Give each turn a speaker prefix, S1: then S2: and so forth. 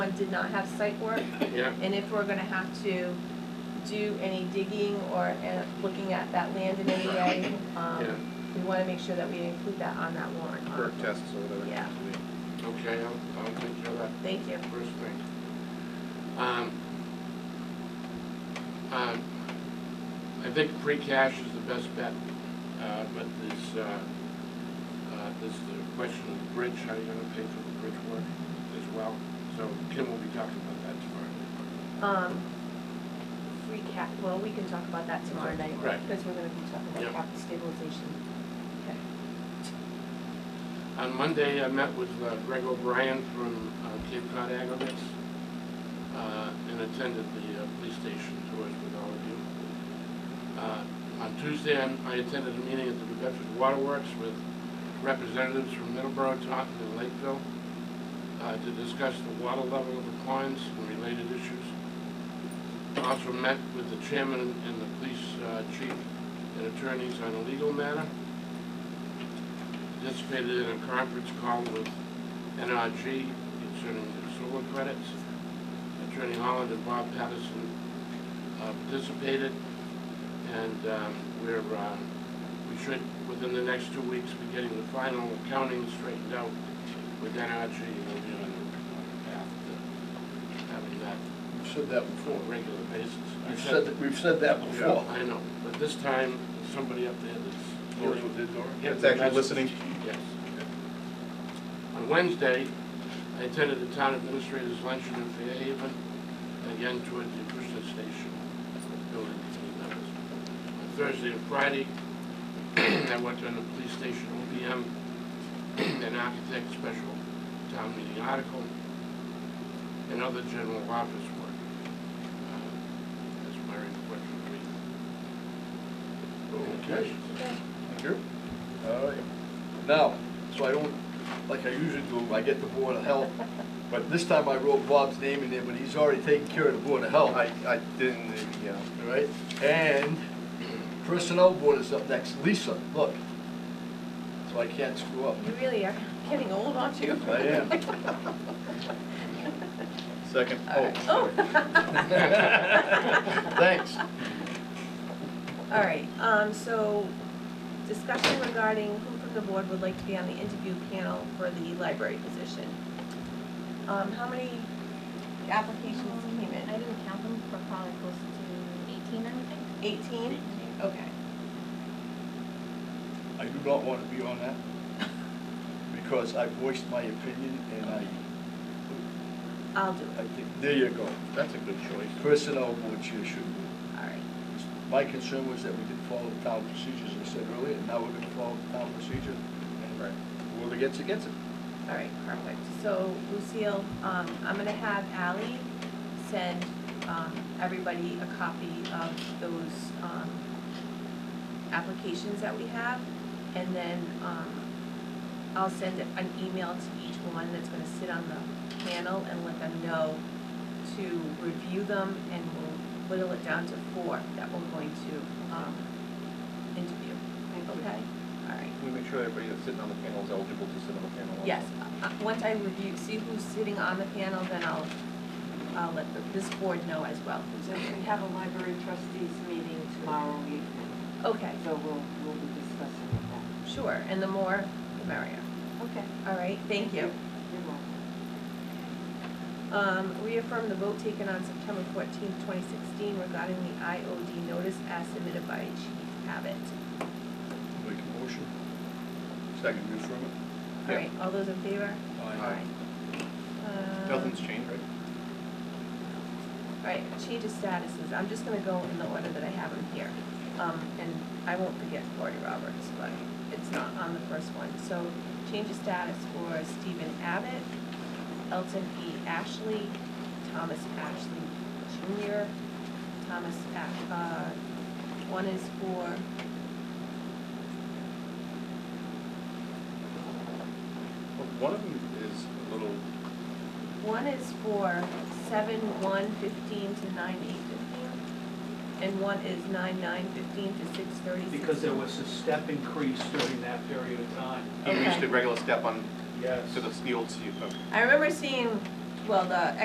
S1: one did not have site work,
S2: yeah,
S1: and if we're gonna have to do any digging or uh, looking at that land in any way,
S2: Yeah.
S1: um, we wanna make sure that we include that on that warrant Um,
S3: Perk
S1: article.
S3: tests or whatever. it
S1: Yeah.
S3: happens to be.
S2: okay, I'll, I'll take care of that
S1: Thank you.
S2: first thing. Um, uh, I think free cash is the best bet, uh, but this, uh, uh, this, the question of the bridge, how you gonna pay for the bridge work as well? So Kim will be talking about that tomorrow.
S1: Um, free cap, well, we can talk about that tomorrow night.
S2: Right.
S1: Because we're gonna be talking
S2: Yep.
S1: about capital stabilization.
S2: On Monday, I met with uh, Greg O'Brien from uh, Cape Cod Agronomics uh, and attended the uh, police station tours with all of you. Uh, On Tuesday, I I attended a meeting at the New Bedford Waterworks with representatives from Middleborough, Taunton, and Lakeville uh, to discuss the water level of the ponds and related issues. Also met with the chairman and the police uh, chief and attorneys on a legal matter participated in a conference call with NRG concerning the solar credits. Attorney Holland and Bob Patterson uh, participated, and um, we're, uh, we should, within the next two weeks, be getting the final accounting straightened out with NRG, and we'll be on the path to having that
S4: We've said that
S2: on
S4: before.
S2: a regular basis. I
S4: We've said, that- we've said that before.
S2: I know, but this time, somebody up there that's
S4: Dealing
S2: dealing
S4: with it, Dora?
S2: Yes,
S3: It's actually
S2: that's-
S3: listening.
S2: Yes. On Wednesday, I attended the town administrator's luncheon in Fairhaven, again toward the Acushnet Station building committee members. On Thursday and Friday, I went to the police station OPM and architect special town meeting article and other general office work. Uh, That's my report for the week.
S4: Okay. Thank you. All right. Now, so I don't, like I usually do, I get the Board of Health, but this time I wrote Bob's name in there, but he's already taken care of the Board of Health.
S3: I, I didn't, uh, yeah.
S4: All right, and Personnel Board is up next. Lisa, look. So I can't screw up.
S1: You really are getting old, aren't you?
S4: I am.
S3: Second,
S1: All
S3: oh,
S1: right.
S3: sorry.
S4: Thanks.
S1: All right, um, so discussion regarding who from the board would like to be on the interview panel for the library position. Um, how many applications came
S5: I
S1: in?
S5: didn't count them, but probably close to eighteen, I would think.
S1: Eighteen? Okay.
S4: I do not want to be on that because I voiced my opinion and I,
S1: I'll do
S4: I
S1: it,
S4: think, there you go.
S3: That's a good choice.
S4: Personnel Board Chair should be.
S1: all right.
S4: My concern was that we didn't follow the town procedures, I said earlier, and now we're gonna follow the town procedure. and-
S3: Right. Whoever gets it, gets it.
S1: All right, perfect. So Lucille, um, I'm gonna have Ally send, um, everybody a copy of those, um, applications that we have. And then, um, I'll send an email to each one that's gonna sit on the panel and let them know to review them and we'll whittle it down to four that we're going to, um, interview. Okay? All right.
S3: We make sure everybody that's sitting on the panel is eligible to sit on the panel. also.
S1: Yes, uh, uh, once I review, see who's sitting on the panel, then I'll, I'll let the- this board know as well.
S6: So we have a library trustees meeting tomorrow evening,
S1: Okay,
S6: so we'll, we'll be discussing that.
S1: sure, and the more, the merrier.
S6: Okay.
S1: All right, thank you.
S6: You're welcome.
S1: Um, reaffirm the vote taken on September fourteenth, twenty sixteen regarding the IOD notice as submitted by Chief Abbott.
S4: Make a motion. Second, you affirm it?
S1: All
S3: Yeah.
S1: right, all those in favor?
S3: Aye.
S1: Um,
S3: Nothing's changed, right?
S1: All right, change of statuses, I'm just gonna go in the order that I have them here. Um, and I won't forget Cory Roberts, but it's not on the first one. So change of status for Stephen Abbott, Elton E. Ashley, Thomas Ashley Jr., Thomas Ash, uh, one is for
S3: Well, One of them is a little,
S1: One is for seven one fifteen to nine eight fifteen, and one is nine nine fifteen to six thirty sixteen.
S7: because there was a step increase during that period of time.
S3: you used
S1: Okay.
S3: the regular step on,
S7: Yes.
S3: to the steel, so you, okay.
S1: I remember seeing, well, the